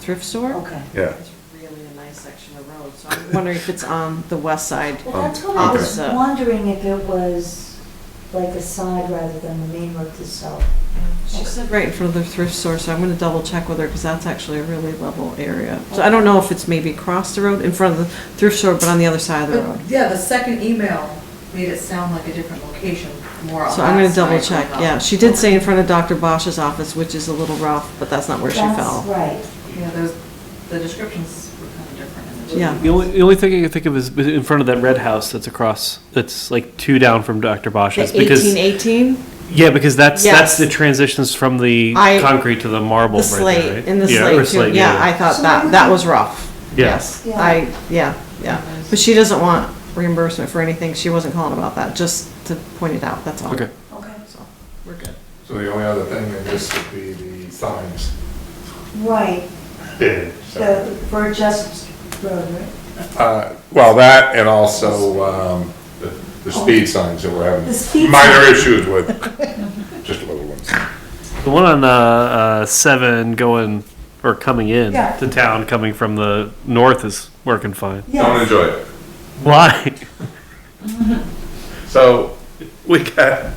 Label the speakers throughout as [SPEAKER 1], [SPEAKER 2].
[SPEAKER 1] thrift store.
[SPEAKER 2] Okay.
[SPEAKER 3] Yeah.
[SPEAKER 1] It's really a nice section of road, so I'm wondering if it's on the west side.
[SPEAKER 2] Well, that's what I was
[SPEAKER 1] Okay.
[SPEAKER 2] wondering if it was like a side rather than the main road itself.
[SPEAKER 1] She said right in front of the thrift store, so I'm gonna double check with her, because that's actually a really level area. So I don't know if it's maybe across the road, in front of the thrift store, but on the other side of the road.
[SPEAKER 4] But, Yeah, the second email made it sound like a different location, more on
[SPEAKER 1] So I'm gonna
[SPEAKER 4] that side
[SPEAKER 1] double
[SPEAKER 4] of the
[SPEAKER 1] check,
[SPEAKER 4] house.
[SPEAKER 1] yeah. She did say in front of Dr. Bosch's office, which is a little rough, but that's not where she
[SPEAKER 2] That's
[SPEAKER 1] fell.
[SPEAKER 2] right.
[SPEAKER 4] Yeah, those, the descriptions were kind of different. in the two
[SPEAKER 1] Yeah.
[SPEAKER 5] The only, the only thing I can think of is in front of that red house that's across, that's like two down from Dr.
[SPEAKER 1] The
[SPEAKER 5] Bosch's. because
[SPEAKER 1] eighteen eighteen,
[SPEAKER 5] Yeah, because that's,
[SPEAKER 1] Yes.
[SPEAKER 5] that's the transitions from the
[SPEAKER 1] I-
[SPEAKER 5] concrete to the marble
[SPEAKER 1] the
[SPEAKER 5] right there, right?
[SPEAKER 1] slate, in the
[SPEAKER 5] Yeah, or
[SPEAKER 1] slate too, yeah, I thought
[SPEAKER 2] So
[SPEAKER 1] that,
[SPEAKER 2] I'm-
[SPEAKER 1] that was rough.
[SPEAKER 5] Yeah.
[SPEAKER 1] Yes,
[SPEAKER 2] Yeah.
[SPEAKER 1] I, yeah, yeah. But she doesn't want reimbursement for anything. She wasn't calling about that, just to point it out, that's all.
[SPEAKER 5] Okay.
[SPEAKER 2] Okay.
[SPEAKER 1] So, We're good.
[SPEAKER 6] So the only other thing in this would be the signs.
[SPEAKER 2] Right,
[SPEAKER 6] bid.
[SPEAKER 2] the, for just road, right?
[SPEAKER 6] Uh, Well, that and also um, the the speed signs that we're
[SPEAKER 2] Oh. The speed
[SPEAKER 6] having minor issues with, just little ones.
[SPEAKER 5] The one on uh, uh, seven going or coming in
[SPEAKER 2] Yeah.
[SPEAKER 5] to town, coming from the north, is working fine.
[SPEAKER 6] Don't
[SPEAKER 2] Yes.
[SPEAKER 6] enjoy it.
[SPEAKER 5] Why?
[SPEAKER 6] So we got,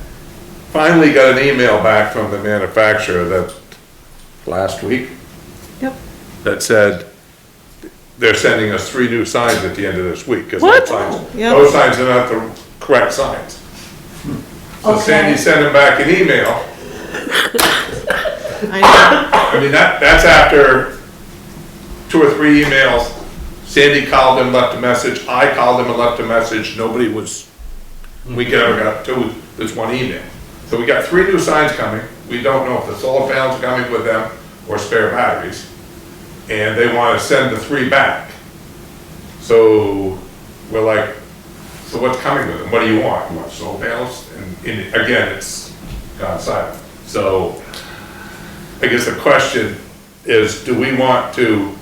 [SPEAKER 6] finally got an email back from the manufacturer that, last week,
[SPEAKER 1] Yep.
[SPEAKER 6] that said, they're sending us three new signs at the end of this week. 'cause
[SPEAKER 5] What?
[SPEAKER 6] those signs-
[SPEAKER 1] Yeah.
[SPEAKER 6] Those signs are not the correct signs. So Sandy
[SPEAKER 2] Okay.
[SPEAKER 6] sent him back an email.
[SPEAKER 1] I know.
[SPEAKER 6] I mean, that, that's after two or three emails. Sandy called him, left a message. I called him and left a message. Nobody was, we never got to this one email. So we got three new signs coming. We don't know if the solar panels are coming with them or spare batteries. And they want to send the three back. So we're like, so what's coming with them? What do you want? You want solar panels? And, and again, it's gone silent. So I guess the question is, do we want to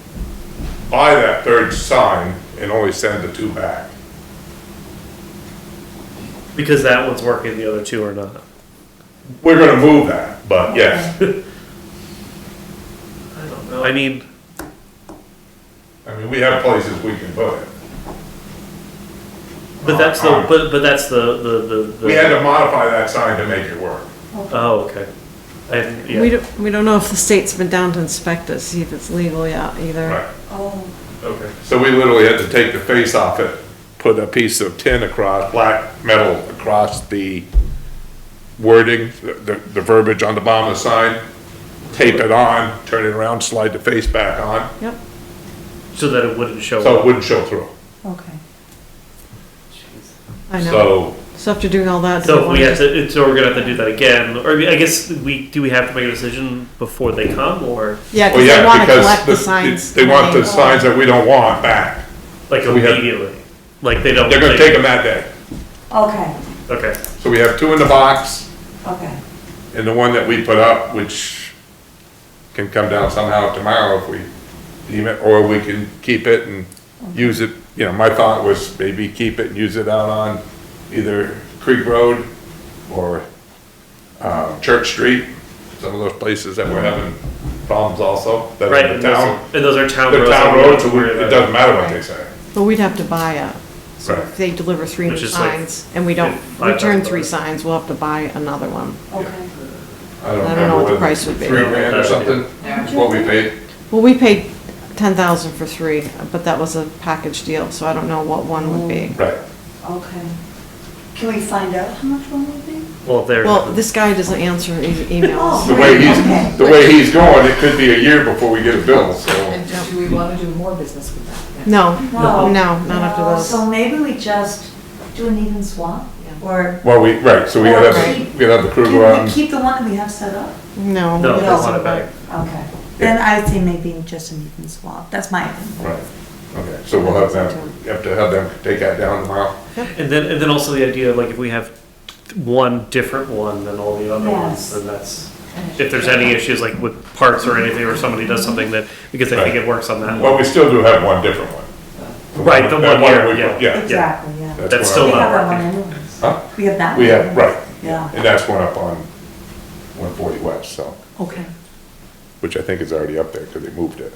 [SPEAKER 6] buy that third sign and only send the two back?
[SPEAKER 5] Because that one's working, the other two are not.
[SPEAKER 6] We're gonna move that, but yes,
[SPEAKER 5] I don't know. I mean,
[SPEAKER 6] I mean, we have places we can put it.
[SPEAKER 5] but that's the but but that's the the the. the
[SPEAKER 6] We had to modify that sign to make it work.
[SPEAKER 5] oh, okay. I hadn't- yeah.
[SPEAKER 1] We don't, we don't know if the state's been down to inspect it, see if it's legal yet either.
[SPEAKER 6] Right.
[SPEAKER 2] Oh,
[SPEAKER 5] okay.
[SPEAKER 6] So we literally had to take the face off it, put a piece of tin across, black metal across the wording, the, the verbiage on the bottom of the sign, tape it on, turn it around, slide the face back on,
[SPEAKER 1] Yep.
[SPEAKER 5] So that it wouldn't show
[SPEAKER 6] so
[SPEAKER 5] up.
[SPEAKER 6] it wouldn't show through.
[SPEAKER 2] okay.
[SPEAKER 1] I know.
[SPEAKER 6] So
[SPEAKER 1] So after doing all that. do
[SPEAKER 5] So if we
[SPEAKER 1] wanna
[SPEAKER 5] have to, so we're gonna have to do that again, or I guess we do. We have to make a decision before they come, or
[SPEAKER 1] just- Yeah,
[SPEAKER 6] Well,
[SPEAKER 1] because they
[SPEAKER 6] yeah,
[SPEAKER 1] want to
[SPEAKER 6] because
[SPEAKER 1] collect the
[SPEAKER 6] the-
[SPEAKER 1] signs.
[SPEAKER 6] it's- they want the signs that we don't want back.
[SPEAKER 5] like
[SPEAKER 6] So we have-
[SPEAKER 5] immediately, like they don't.
[SPEAKER 6] They're gonna
[SPEAKER 5] they-
[SPEAKER 6] take them that day.
[SPEAKER 2] Okay,
[SPEAKER 5] Okay.
[SPEAKER 6] So we have two in the box
[SPEAKER 2] okay.
[SPEAKER 6] and the one that we put up, which can come down somehow tomorrow if we deem it, or we can keep it and use it. You know, my thought was maybe keep it and use it out on either Creek Road or, uh, Church Street, some of those places that we're having problems also, that
[SPEAKER 5] Right,
[SPEAKER 6] are in
[SPEAKER 5] and
[SPEAKER 6] the
[SPEAKER 5] those,
[SPEAKER 6] town.
[SPEAKER 5] and those are town
[SPEAKER 6] They're
[SPEAKER 5] roads. that
[SPEAKER 6] town
[SPEAKER 5] we don't
[SPEAKER 6] roads, so we-
[SPEAKER 5] worry
[SPEAKER 6] it
[SPEAKER 5] about.
[SPEAKER 6] doesn't matter what they say.
[SPEAKER 1] But we'd have to buy it. So
[SPEAKER 6] Right.
[SPEAKER 1] if they deliver three new
[SPEAKER 5] Which is like
[SPEAKER 1] signs and we don't
[SPEAKER 5] fif- five
[SPEAKER 1] return
[SPEAKER 5] thousand
[SPEAKER 1] three
[SPEAKER 5] dollars.
[SPEAKER 1] signs, we'll have to buy another one.
[SPEAKER 2] Okay.
[SPEAKER 6] I
[SPEAKER 1] I don't
[SPEAKER 6] remember
[SPEAKER 1] know what the
[SPEAKER 6] it was
[SPEAKER 1] price would be.
[SPEAKER 6] Three grand or
[SPEAKER 5] Yeah.
[SPEAKER 6] something, what we paid.
[SPEAKER 1] Well, we paid ten thousand for three, but that was a package deal, so I don't know what one would be.
[SPEAKER 6] Right.
[SPEAKER 2] Okay. Can we find out how much one would be?
[SPEAKER 5] Well, they're.
[SPEAKER 1] Well, this guy doesn't answer e-
[SPEAKER 6] The
[SPEAKER 1] emails.
[SPEAKER 6] way
[SPEAKER 2] Okay.
[SPEAKER 6] he's, the way he's going, it could be a year before we get a bill, so.
[SPEAKER 4] And uh, do we want to do more business with that?
[SPEAKER 1] No, no, not after
[SPEAKER 2] No,
[SPEAKER 1] those.
[SPEAKER 2] So maybe we just do an even swap, or
[SPEAKER 6] Well, we, right, so we gotta, have- we gotta have the crew go out
[SPEAKER 2] can we
[SPEAKER 6] and
[SPEAKER 2] keep the one that we have set up?
[SPEAKER 1] No.
[SPEAKER 5] No,
[SPEAKER 1] it
[SPEAKER 5] they
[SPEAKER 1] doesn't
[SPEAKER 5] want it
[SPEAKER 1] work.
[SPEAKER 5] back.
[SPEAKER 2] Okay. Then I think maybe just an even swap, that's my opinion.
[SPEAKER 6] Right, okay, so we'll have them, you have to have them take that down tomorrow.
[SPEAKER 5] And then, and then also the idea of like if we have one different one than all the other
[SPEAKER 2] Yes.
[SPEAKER 5] ones, then that's, if there's any issues like with parts or anything, or somebody does something that, because they think
[SPEAKER 6] Right.
[SPEAKER 5] it works on that
[SPEAKER 6] Well,
[SPEAKER 5] one.
[SPEAKER 6] we still do have one different one.
[SPEAKER 5] Right, the
[SPEAKER 6] That
[SPEAKER 5] one here,
[SPEAKER 6] we-
[SPEAKER 5] yeah.
[SPEAKER 2] Exactly, yeah.
[SPEAKER 5] That's
[SPEAKER 6] one
[SPEAKER 5] still
[SPEAKER 2] We
[SPEAKER 6] up-
[SPEAKER 5] not-
[SPEAKER 2] have that one anyways.
[SPEAKER 6] Huh?
[SPEAKER 2] We have that.
[SPEAKER 6] We
[SPEAKER 2] one
[SPEAKER 6] have, right,
[SPEAKER 2] anyways. Yeah,
[SPEAKER 6] and that's one up on one forty west, so,
[SPEAKER 2] okay.
[SPEAKER 6] which I think is already up there, cause they moved it.